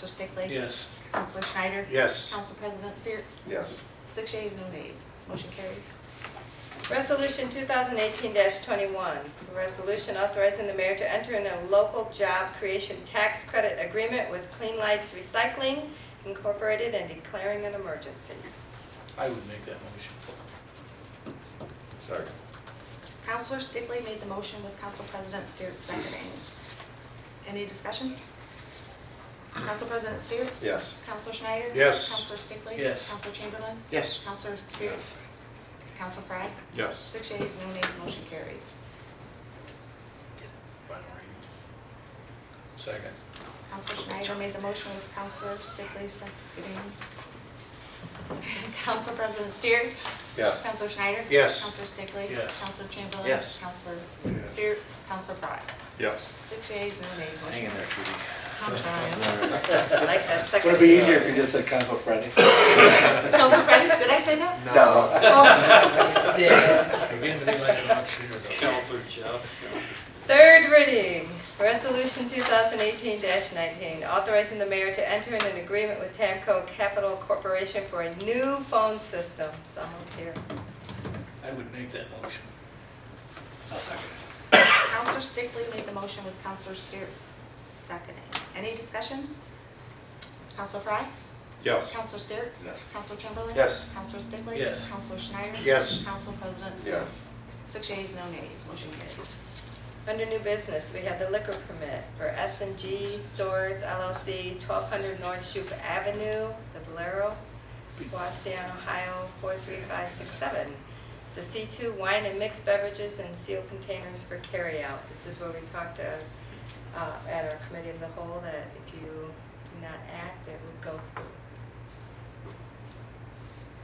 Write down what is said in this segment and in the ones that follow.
Counselor Stickley? Yes. Counselor Schneider? Yes. Council President Steeritz? Yes. Six yeas, no nays. Motion carries. Resolution 2018-21, a resolution authorizing the mayor to enter in a local job creation tax credit agreement with Clean Lights Recycling Incorporated and declaring an emergency. I would make that motion. Second. Counselor Stickley made the motion with Council President Steeritz seconding. Any discussion? Council President Steeritz? Yes. Counselor Schneider? Yes. Counselor Stickley? Yes. Counselor Chamberlain? Yes. Counselor Steeritz? Counselor Frye? Yes. Six yeas, no nays. Motion carries. Second. Counselor Schneider made the motion with Counselor Stickley seconding. Council President Steers? Yes. Counselor Schneider? Yes. Counselor Stickley? Yes. Counselor Chamberlain? Yes. Counselor Steers? Counselor Frye? Yes. Six yeas, no nays, Hang motion in there, carries. Judy. I'm trying. I like that second. Would it be easier if you just said Council Friday? Counselor Frye, did I say that? No. Oh. Again, be like an auctioneer. though. Third reading, Resolution 2018-19, authorizing the mayor to enter in an agreement with Tamco Capital Corporation for a new phone system. It's almost here. I would make that motion. I'll second Counselor Stickley made the motion with Counselor Steers seconding. Any discussion? Counselor Frye? Yes. Counselor Steers? Yes. Counselor Chamberlain? Yes. Counselor Stickley? Yes. Counselor Schneider? Yes. Council President Steers? Yes. Six yeas, no nays, motion carries. Under new business, we have the liquor permit for s and G Stores LLC, 1200 North Shoup Avenue, the Bolero, Waseon, Ohio, 43567. It's a C2 wine and mixed beverages and sealed containers for carryout. This is where we talked uh, uh, at our committee of the whole that if you do not act, it would go through.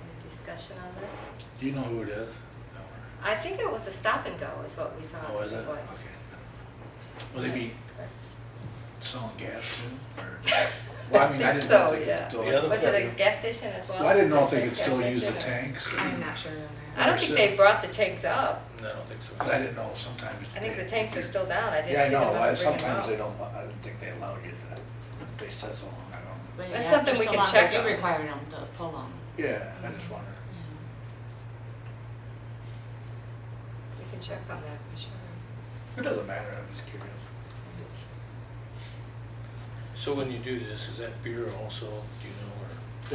Any discussion on this? Do you know who it is? I think it was a stop and go is what we thought Oh, is it? it Okay. was. Will they be Correct. selling gas too, or? Well, I mean, think didn't so, know if they could yeah. still- The other Was it a gas station as well? Well, I didn't know if they Gas could still use the station or- tanks. I'm not sure on that. I don't think they brought the tanks up. No, I don't think so. But I didn't know, sometimes. I think they- the tanks are still down. I Yeah, didn't I see them know, ever I- bring them sometimes they out. don't, I didn't think they allowed you to, they said so long, I don't. know. But That's yeah, something for we so can long, check They do on. require them to pull them. Yeah, I just wonder. We can check on that for sure. It doesn't matter, I'm just curious. So when you do this, is that beer also, do you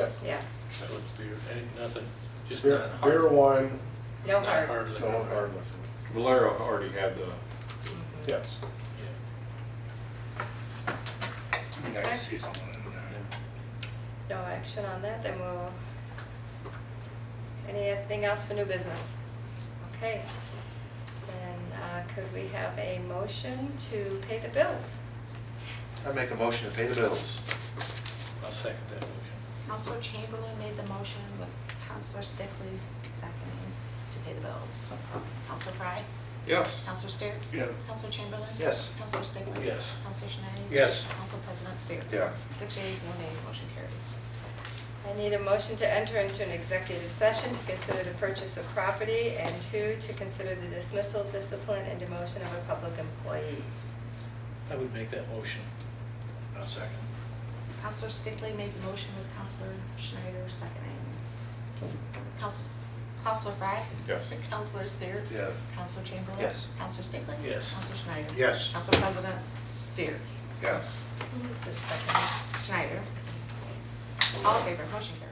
know, Yeah, Yeah, or, so it's beer, ain't nothing, just not beer, hard? beer, wine, no Not hard. hard no liquor. hard liquor. Valero already had the, Mm-hmm. Yes. Yeah. It'd be nice to see someone in there. No action on that, then we'll, anything else for new business? Okay. Then uh, could we have a motion to pay the bills? I make a motion to pay the bills. I'll second that motion. Counselor Chamberlain made the motion with Counselor Stickley seconding to pay the bills. Counselor Frye? Yes. Counselor Steers? Yeah. Counselor Chamberlain? Yes. Counselor Stickley? Yes. Counselor Schneider? Yes. Council President Steers? Yes. Six yeas, no nays, motion carries. I need a motion to enter into an executive session to consider the purchase of property, and two, to consider the dismissal, discipline, and demotion of a public employee. I would make that motion. I'll second. Counselor Stickley made the motion with Counselor Schneider seconding. Counsel- Counselor Frye? Yes. Counselor Steers? Yes. Counselor Chamberlain? Yes. Counselor Stickley? Yes. Counselor Schneider? Yes. Council President Steers? Yes. Who was the second? Schneider. All in favor, motion carries.